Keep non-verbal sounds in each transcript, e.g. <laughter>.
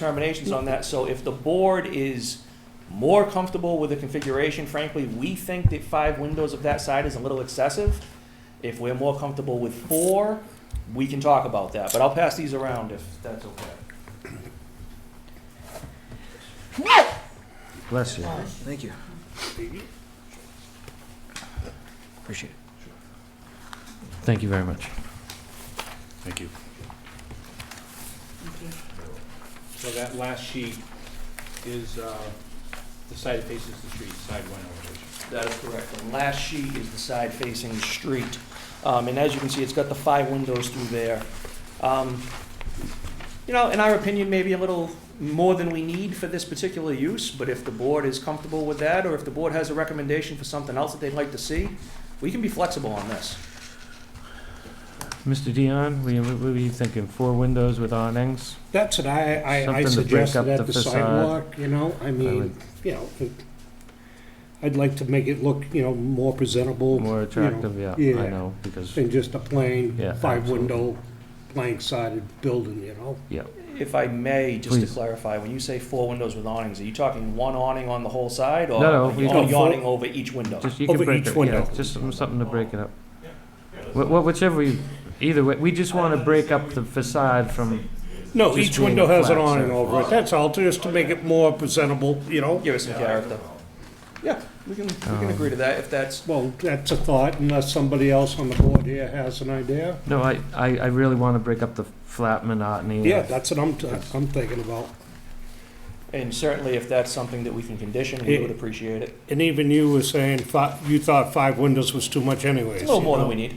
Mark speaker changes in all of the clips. Speaker 1: determinations on that, so if the board is more comfortable with the configuration, frankly, we think that five windows of that side is a little excessive. If we're more comfortable with four, we can talk about that, but I'll pass these around if that's okay.
Speaker 2: Bless you. Thank you. Appreciate it.
Speaker 3: Thank you very much.
Speaker 4: Thank you. So that last sheet is, uh, the side that faces the street, side one elevation.
Speaker 1: That is correct. And last sheet is the side facing the street. Um, and as you can see, it's got the five windows through there. Um, you know, in our opinion, maybe a little more than we need for this particular use, but if the board is comfortable with that, or if the board has a recommendation for something else that they'd like to see, we can be flexible on this.
Speaker 3: Mr. Dion, what were you thinking, four windows with awnings?
Speaker 5: That's what I, I, I
Speaker 3: Something to break up
Speaker 5: suggested
Speaker 3: the
Speaker 5: at the
Speaker 3: facade.
Speaker 5: sidewalk, you know, I
Speaker 3: would-
Speaker 5: mean, you know, it- I'd like to make it look, you know, more presentable. you
Speaker 3: More
Speaker 5: know,
Speaker 3: attractive, yeah, I
Speaker 5: yeah.
Speaker 3: know, because,
Speaker 5: Than just a plain,
Speaker 3: Yeah,
Speaker 5: five-window, blank-sided building, you know?
Speaker 3: yeah,
Speaker 1: If I may, just to
Speaker 3: Please.
Speaker 1: clarify, when you say four windows with awnings, are you talking one awning on the whole side, or
Speaker 3: No, no,
Speaker 1: are
Speaker 3: we-
Speaker 1: you
Speaker 5: No, four-
Speaker 1: yawning over each window?
Speaker 3: just, you can
Speaker 5: Over
Speaker 3: break
Speaker 5: each
Speaker 3: it, yeah,
Speaker 5: window.
Speaker 3: just some- something to break it up. Wha- wha- Whichever you, either way, we just want to break up the facade from,
Speaker 5: No,
Speaker 3: Just
Speaker 5: each
Speaker 3: being
Speaker 5: window has an
Speaker 3: flat,
Speaker 5: awning
Speaker 3: so-
Speaker 5: over it, that's all, just to make it more presentable, you know?
Speaker 1: Give us some character. Yeah, we can, we can agree to that if that's
Speaker 5: Well, that's a thought, unless somebody else on the board here has an idea.
Speaker 3: no, I, I, I really want to break up the flat monotony.
Speaker 5: Yeah,
Speaker 3: of-
Speaker 5: that's what I'm, t- I'm thinking about.
Speaker 1: And certainly, if that's something that we can condition, we
Speaker 5: Yeah.
Speaker 1: would appreciate it.
Speaker 5: And even you were saying, fi- you thought five windows was too much anyways.
Speaker 1: It's a little
Speaker 5: you
Speaker 1: more than
Speaker 5: know?
Speaker 1: we need.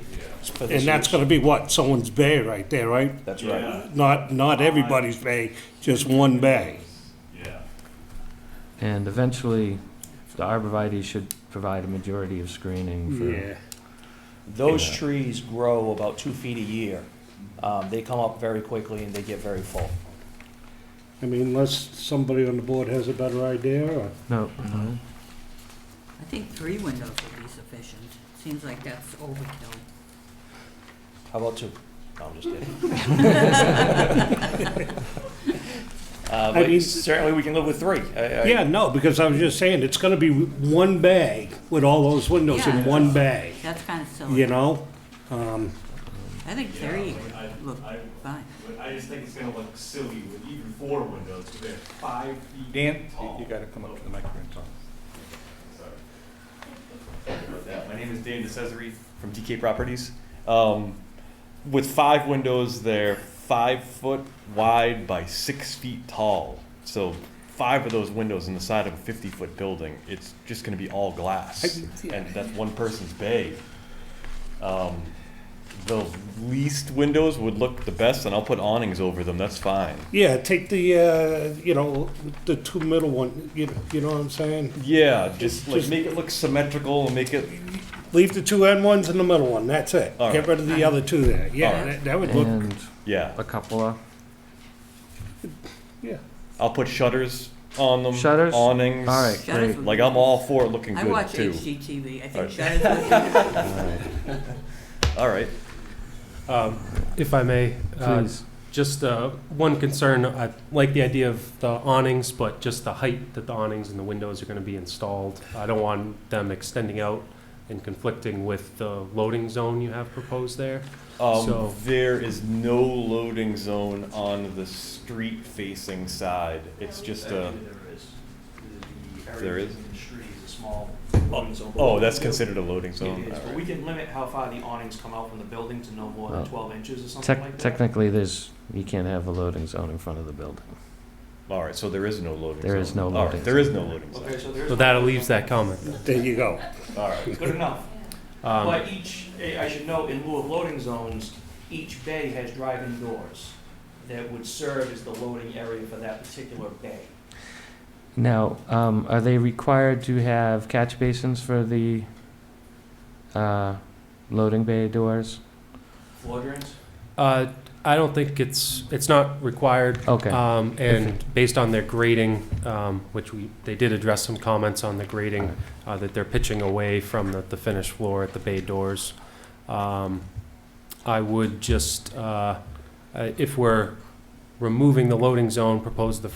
Speaker 1: for this
Speaker 5: And that's
Speaker 1: use.
Speaker 5: gonna be what, someone's bay right there, right?
Speaker 1: That's right.
Speaker 5: Not, not everybody's bay, just one bay.
Speaker 3: And eventually, the arborvitae should provide a majority of screening for,
Speaker 1: Those
Speaker 3: Yeah.
Speaker 1: trees grow about two feet a year. Um, They come up very quickly and they get very full.
Speaker 5: I mean, unless somebody on the board has a better idea, or,
Speaker 3: no,
Speaker 6: Mm-hmm.
Speaker 3: no,
Speaker 7: I think three windows would be sufficient. Seems like that's overkill.
Speaker 1: How about two? No, I'm just kidding.
Speaker 6: <laughs>
Speaker 1: Uh,
Speaker 5: I mean-
Speaker 1: But certainly, we can live with three. I- I-
Speaker 5: yeah, no, because I was just saying, it's gonna be one bay with all those windows in
Speaker 7: Yeah.
Speaker 5: one bay,
Speaker 7: That's kind of
Speaker 5: you
Speaker 7: silly.
Speaker 5: know? Um,
Speaker 7: I think three
Speaker 6: Yeah, I-
Speaker 7: would look
Speaker 6: I-
Speaker 7: fine.
Speaker 6: But I just think it's gonna look silly with even four windows, because they're five feet.
Speaker 4: Dan,
Speaker 6: tall.
Speaker 4: you gotta come up to the microphone, Tom.
Speaker 6: Sorry. Yeah, My name is Dan DeCesare from DK Properties. Um, with five windows, they're five foot wide by six feet tall. So five of those windows in the side of a fifty foot building, it's just gonna be all glass. And that's one person's bay. Um, the least windows would look the best and I'll put awnings over them, that's fine.
Speaker 5: yeah, take the, uh, you know, the two middle one, you, you know what I'm saying?
Speaker 6: Yeah, just like
Speaker 5: Just-
Speaker 6: make it look symmetrical and make it,
Speaker 5: Leave the two end ones and the middle one, that's it.
Speaker 6: All
Speaker 5: Get
Speaker 6: right.
Speaker 5: rid of the other two there, yeah,
Speaker 6: All right.
Speaker 5: that- that would look,
Speaker 3: and
Speaker 6: yeah.
Speaker 3: a cupola.
Speaker 5: yeah.
Speaker 6: I'll put shutters on them.
Speaker 3: Shutters?
Speaker 6: Awnings.
Speaker 3: All right,
Speaker 7: Shutters
Speaker 3: great.
Speaker 7: would
Speaker 6: Like
Speaker 7: be-
Speaker 6: I'm all for it looking
Speaker 7: I
Speaker 6: good
Speaker 7: watch
Speaker 6: too.
Speaker 7: HGTV. I
Speaker 6: Alright.
Speaker 7: think shutters would
Speaker 6: All right.
Speaker 8: Um, If I may, uh,
Speaker 3: Please.
Speaker 8: just uh, one concern, I like the idea of the awnings, but just the height that the awnings and the windows are going to be installed. I don't want them extending out and conflicting with the loading zone you have proposed there.
Speaker 6: Um,
Speaker 8: So-
Speaker 6: There is no loading zone on the street facing side. It's just a, There is? oh, that's considered a loading zone.
Speaker 1: It is,
Speaker 6: All
Speaker 1: but
Speaker 6: right.
Speaker 1: we can limit how far the awnings come out from the building to no more than
Speaker 3: Well,
Speaker 1: twelve inches or something
Speaker 3: Tec-
Speaker 1: like that.
Speaker 3: Technically, there's, you can't have a loading zone in front of the building.
Speaker 6: All right, so there is no loading zone.
Speaker 3: There is no
Speaker 6: All right,
Speaker 3: loading
Speaker 6: There is no loading
Speaker 1: Okay,
Speaker 6: zone.
Speaker 1: so there's.
Speaker 8: So that leaves that comment.
Speaker 5: There you go.
Speaker 6: All right.
Speaker 1: Good enough.
Speaker 8: Um,
Speaker 1: But each, eh, I should note, in lieu of loading zones, each bay has drive-in doors that would serve as the loading area for that particular bay.
Speaker 3: Now, um, are they required to have catch basins for the, uh, loading bay doors?
Speaker 1: Floor drains?
Speaker 8: uh, I don't think it's, it's not required.
Speaker 3: Okay.
Speaker 8: Um, And based on their grading, um, which we, they did address some comments on the grading, uh, that they're pitching away from the, the finished floor at the bay doors. Um, I would just, uh, uh, if we're
Speaker 3: removing the loading zone proposed the